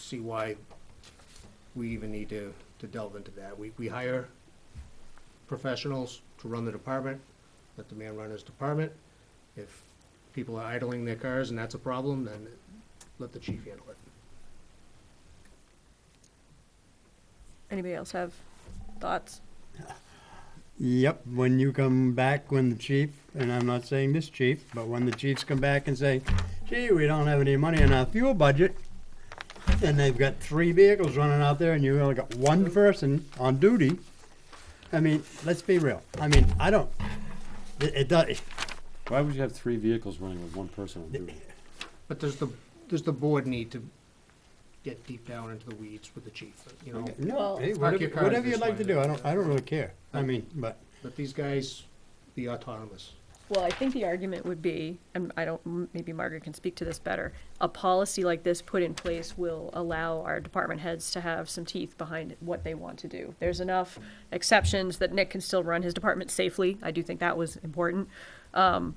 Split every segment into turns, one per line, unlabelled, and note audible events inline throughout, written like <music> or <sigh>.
see why we even need to, to delve into that. We, we hire professionals to run the department, let the man run his department. If people are idling their cars and that's a problem, then let the chief handle it.
Anybody else have thoughts?
Yep, when you come back, when the chief, and I'm not saying this chief, but when the chiefs come back and say, gee, we don't have any money in our fuel budget, and they've got three vehicles running out there and you've only got one person on duty, I mean, let's be real. I mean, I don't, it, it does,
Why would you have three vehicles running with one person on duty?
But does the, does the board need to get deep down into the weeds with the chief, you know?
no, hey,
Park
whatever,
your cars
whatever you'd
this
like to
way.
do, I don't, I don't really care. I mean, but,
Let these guys be autonomous.
Well, I think the argument would be, and I don't, m- maybe Margaret can speak to this better, a policy like this put in place will allow our department heads to have some teeth behind what they want to do. There's enough exceptions that Nick can still run his department safely. I do think that was important. Um,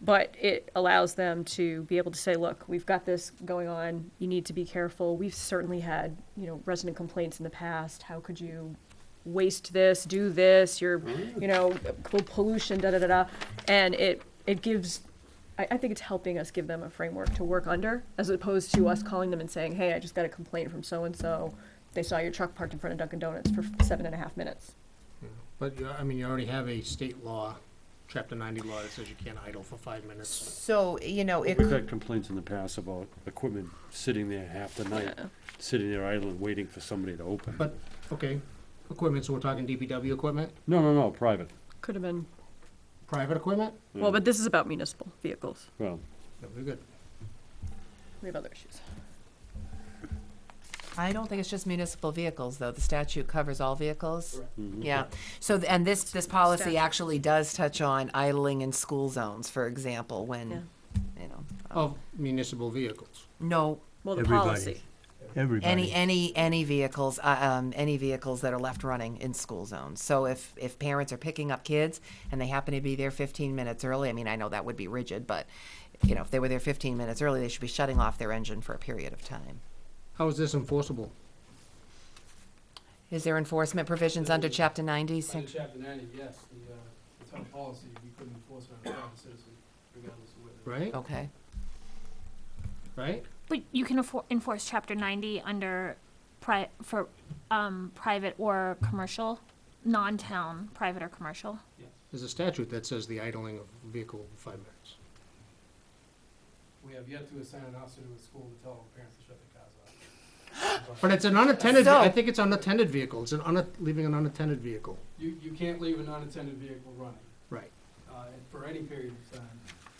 but it allows them to be able to say, look, we've got this going on. You need to be careful. We've certainly had, you know, resident complaints in the past. How could you waste this, do this, your, you know, pol- pollution, da da da da. And it, it gives, I, I think it's helping us give them a framework to work under as opposed to us calling them and saying, hey, I just got a complaint from so and so. They saw your truck parked in front of Dunkin' Donuts for seven and a half minutes.
But, you- I mean, you already have a state law, chapter ninety law that says you can't idle for five minutes.
So, you know, it,
We've had complaints in the past about equipment sitting there half the night,
Yeah.
sitting there idle and waiting for somebody to open.
But, okay, equipment, so we're talking DPW equipment,
No, no, no, private,
Could have been,
private equipment?
well, but this is about municipal vehicles.
well,
No, we're good.
We have other issues.
I don't think it's just municipal vehicles, though. The statute covers all vehicles.
mhm.
Yeah. So, th- and this, this policy
Statute.
actually does touch on idling in school zones, for example, when, you know,
Of municipal vehicles.
no,
Well, the
Everybody.
policy.
any, any, any vehicles, uh, um, any vehicles that are left running in school zones. So if, if parents are picking up kids and they happen to be there fifteen minutes early, I mean, I know that would be rigid, but, you know, if they were there fifteen minutes early, they should be shutting off their engine for a period of time.
How is this enforceable?
Is there enforcement provisions under chapter ninety?
Under chapter ninety, yes, the, uh, the town policy, we couldn't enforce it on a private citizen regardless of whether.
Right,
Okay.
right?
But you can affor- enforce Chapter 90 under pri- for um, private or commercial, non-town, private or commercial.
There's a statute that says the idling of vehicle for five minutes.
We have yet to assign an officer to a school to tell parents to shut their cars off.
<laughs> But it's an unattended, ve-
So-
I think it's unattended vehicle, it's an un, leaving an unattended vehicle.
You, you can't leave an unattended vehicle running,
Right,
uh, for any period of time.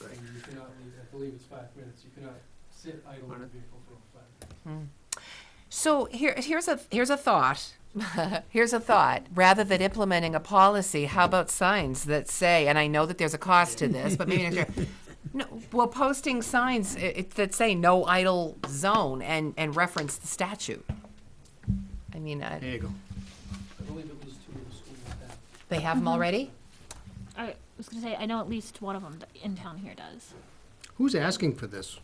And
right.
you cannot leave, I believe it's five minutes, you cannot sit idle in a vehicle for over five minutes.
So here, here's a here's a thought. <laughs> here's a thought. Rather than implementing a policy, how about signs that say? And I know that there's a cost to this, but maybe next year. <laughs> No, well, posting signs i- it, that say "no idle zone" and and reference the statute. I mean, uh,
There
I,
you go.
I believe at least two of the schools have.
they have them already.
I was going to say, I know at least one of them in town here does.
Who's asking for this?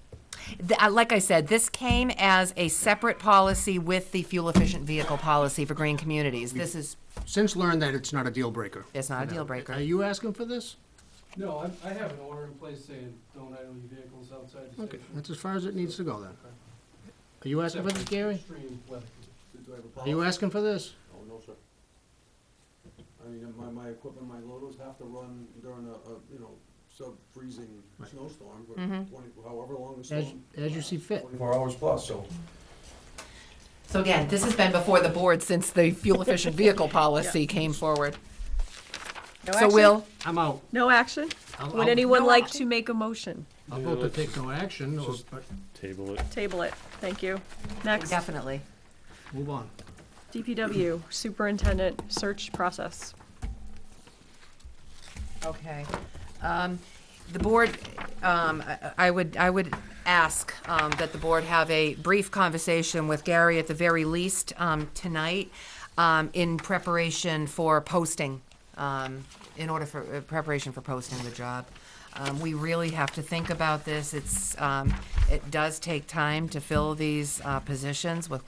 The- uh, like I said, this came as a separate policy with the fuel efficient vehicle policy for green communities. This is
Since learned that it's not a deal breaker.
it's not a deal
Are
breaker.
you asking for this?
No, I, I have an order in place saying, don't idle your vehicles outside the
Okay,
station.
that's as far as it needs to go then. Are you asking for this,
Except
Gary?
Extreme weather.
Are you asking for this?
Oh, no, sir. I mean, my, my equipment, my loaders have to run during a, a, you know, sub-freezing
Right.
snowstorm, but
Mhm.
twenty, however long the
As,
storm.
as you see fit.
Twenty-four hours plus, so.
So again, this has been before the board since the fuel efficient vehicle policy came forward.
No
So
action?
Will,
I'm out.
No action?
I'll-
Would
I'll-
anyone like to make a motion?
I'll vote to take no action, or, but
Table it.
Table it. Thank you. Next,
definitely.
move on.
DPW Superintendent Search Process.
Okay. Um, The board, um, I- I would, I would ask um, that the board have a brief conversation with Gary at the very least um, tonight um, in preparation for posting, um, in order for, uh, preparation for posting the job. Um, We really have to think about this. It's, um, it does take time to fill these uh, positions with